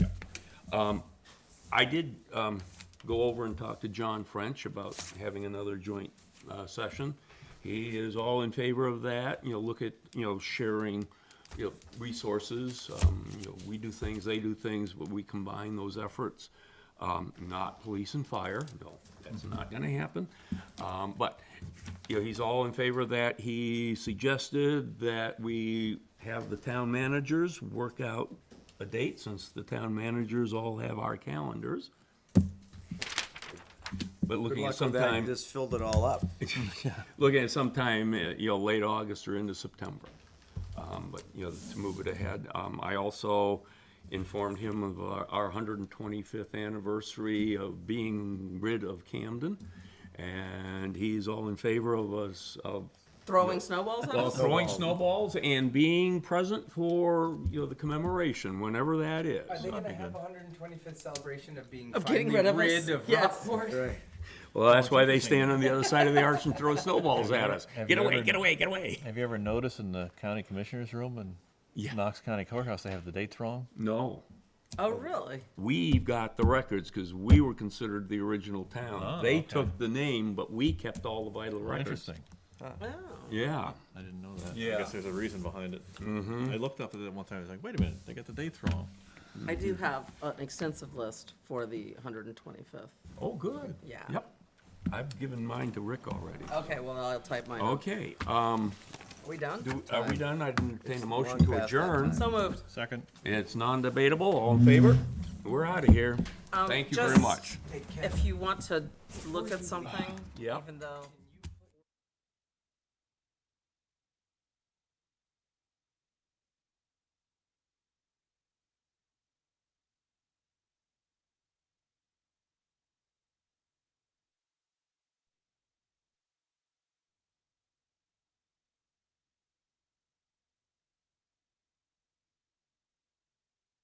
I did um, go over and talk to John French about having another joint uh, session. He is all in favor of that, you know, look at, you know, sharing, you know, resources. um, You know, we do things, they do things, but we combine those efforts. Um, Not police and fire, no, that's not gonna happen. Um, But, you know, he's all in favor of that. He suggested that we have the town managers work out a date, since the town managers all have our calendars. But Good looking at luck with that, you sometime, just filled it all up. looking at sometime, uh, you know, late August or into September. Um, But, you know, to move it ahead. Um, I also informed him of our- our 125th anniversary of being rid of Camden, and he's all in favor of us, of Throwing snowballs at Well, us? throwing snowballs and being present for, you know, the commemoration, whenever that is. Are they gonna have a hundred and twenty-fifth celebration of being Of finally getting rid of us? of Yes. Rockport? Well, that's why they stand on the other side of the arch and throw snowballs at us. Have Get you away, ever- get away, get away. Have you ever noticed in the county commissioner's room in Yeah. Knox County Courthouse, they have the dates wrong? No, Oh, really? we've got the records because we were considered the original town. Oh, They okay. took the name, but we kept all the vital records. Interesting. Oh. Yeah, I didn't know that. Yeah. I guess there's a reason behind it. I looked up at it one time. I was like, wait a minute, they got the dates wrong. I do have an extensive list for the 125th. oh, good. Yeah. Yep. I've given mine to Rick already. Okay, well, I'll type mine up. Okay, um, Are we done? do, are we done? I entertain a motion long to past that adjourn. So moved. Second. It's non-debatable. All in favor? We're out of here. Um, Thank you very just- much. If you want to look at something, Yeah. even though.